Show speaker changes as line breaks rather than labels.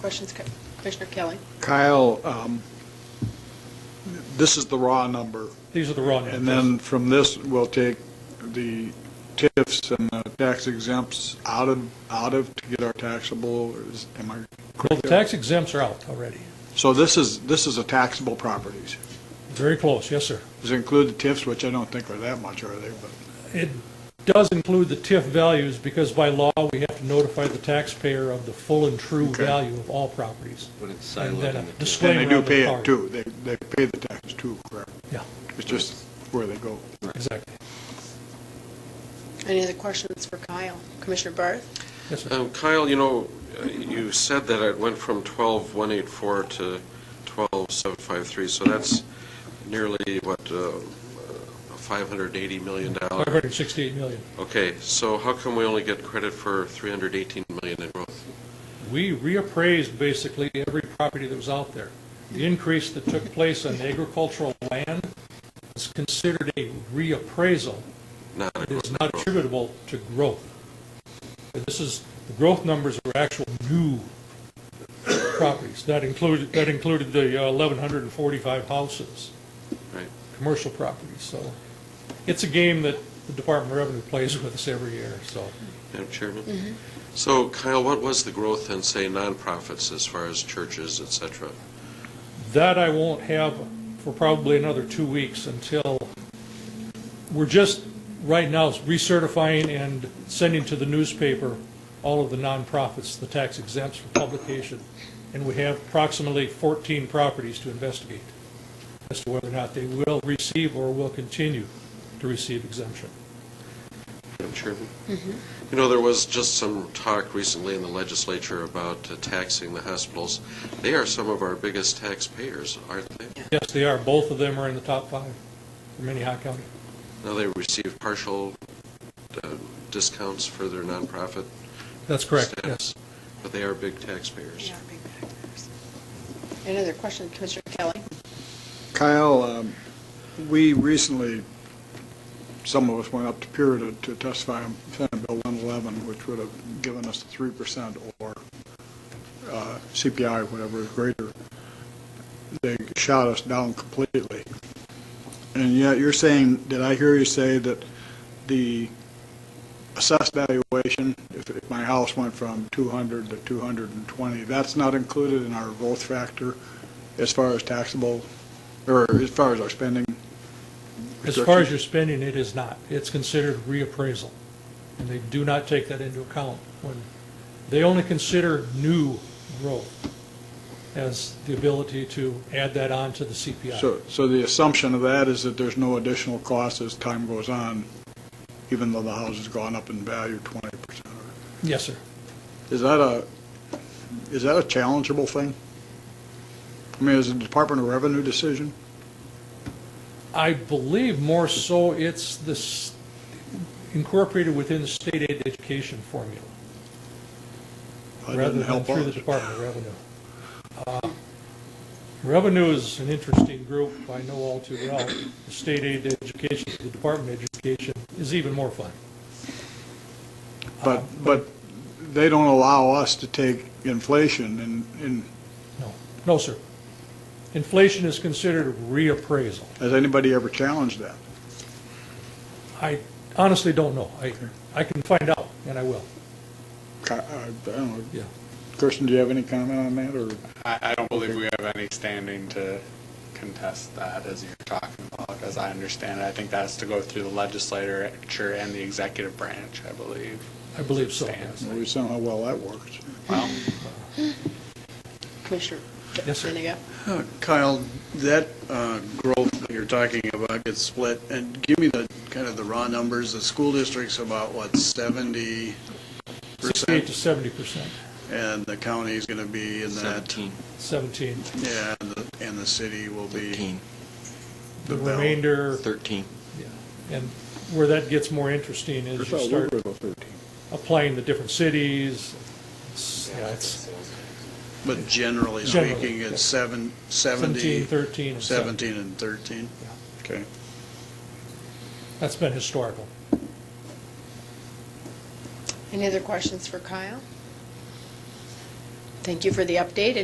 Questions, Co- Commissioner Kelly?
Kyle, um, this is the raw number,
These are the raw numbers.
and then from this, we'll take the TIFs and the tax exempts out of, out of to get our taxable, or is, am I
Well,
correct?
the
there?
tax exempts are out already.
So this is, this is a taxable properties.
Very close, yes, sir.
Does it include the TIFs, which I don't think are that much, are they? But,
It does include the TIF values because by law, we have to notify the taxpayer of the full and true
Okay.
value of all properties.
But it's
And
siloed
then
in
a
the TIF.
disclaimer
and they do
on the
pay
card.
it too, they, they pay the tax too, correct?
Yeah,
It's just where they go.
exactly.
Any other questions for Kyle? Commissioner Barth?
Yes, sir.
Um, Kyle, you know, uh, you said that it went from 12184 to 12753, so that's nearly, what, uh, a $580 million? dollar-
568 million.
Okay, so how come we only get credit for 318 million in growth?
We reappraised basically every property that was out there. The increase that took place on agricultural land is considered a reappraisal.
Not a
It is
growth.
not attributable to growth. And This is, the growth numbers are actual new properties. That included, that included the uh, 1,145 houses,
Right.
commercial properties, so it's a game that the Department of Revenue plays with us every year, so.
Madam Chairman? So Kyle, what was the growth in, say, nonprofits as far as churches, et cetera?
That I won't have for probably another two weeks until, we're just, right now, recertifying and sending to the newspaper all of the nonprofits, the tax exempts for publication, and we have approximately 14 properties to investigate as to whether or not they will receive or will continue to receive exemption.
Madam Chairman? You know, there was just some talk recently in the legislature about uh, taxing the hospitals. They are some of our biggest taxpayers, aren't they?
Yes, they are, both of them are in the top five for Minnehaha County.
Now they receive partial uh, discounts for their nonprofit
That's correct, yes.
status, but they are big taxpayers.
Any other questions, Commissioner Kelly?
Kyle, um, we recently, some of us went up to Pura to- to testify on Senate Bill 111, which would have given us 3% or uh, CPI, whatever is greater. They shot us down completely. And yet you're saying, did I hear you say that the assessed valuation, if if my house went from 200 to 220, that's not included in our growth factor as far as taxable or as far as our spending?
As far
restrictions?
as your spending, it is not. It's considered reappraisal, and they do not take that into account when, they only consider new growth as the ability to add that on to the CPI.
So, so the assumption of that is that there's no additional cost as time goes on, even though the house has gone up in value 20%.
Yes, sir.
Is that a, is that a challengeable thing? I mean, is it a Department of Revenue decision?
I believe more so it's this incorporated within the state aid education formula.
That doesn't
rather than
help
through
us.
the Department of Revenue. Uh, Revenue is an interesting group, I know all too well. The State aid to education, the Department of Education is even more fun.
But, but they don't allow us to take inflation and, and
No, no, sir. Inflation is considered a reappraisal.
has anybody ever challenged that?
I honestly don't know. I, I can find out, and I will.
Ki- uh, I don't know.
Yeah.
Kirsten, do you have any comment on that, or?
I, I don't believe we have any standing to contest that as you're talking about, as I understand it. I think that has to go through the legislature and the executive branch, I believe.
I believe so, yes.
Stands.
Well, We just don't know how well that works.
Um,
Commissioner
Yes, sir.
Benega?
Uh, Kyle, that uh, growth that you're talking about gets split, and give me the, kind of the raw numbers. The school district's about, what, 70%?
68 to 70 percent,
And the county's going to be in that,
17,
17.
yeah, and the, and the city will be,
13,
The
The bell.
remainder,
13.
and where that gets more interesting is you start applying the different cities. It's- Yeah, it's
but generally
Generally,
speaking,
yeah.
it's seven,
17,
70,
13, and 17.
17 and 13? Okay.
That's been historical.
Any other questions for Kyle? Thank you for the update,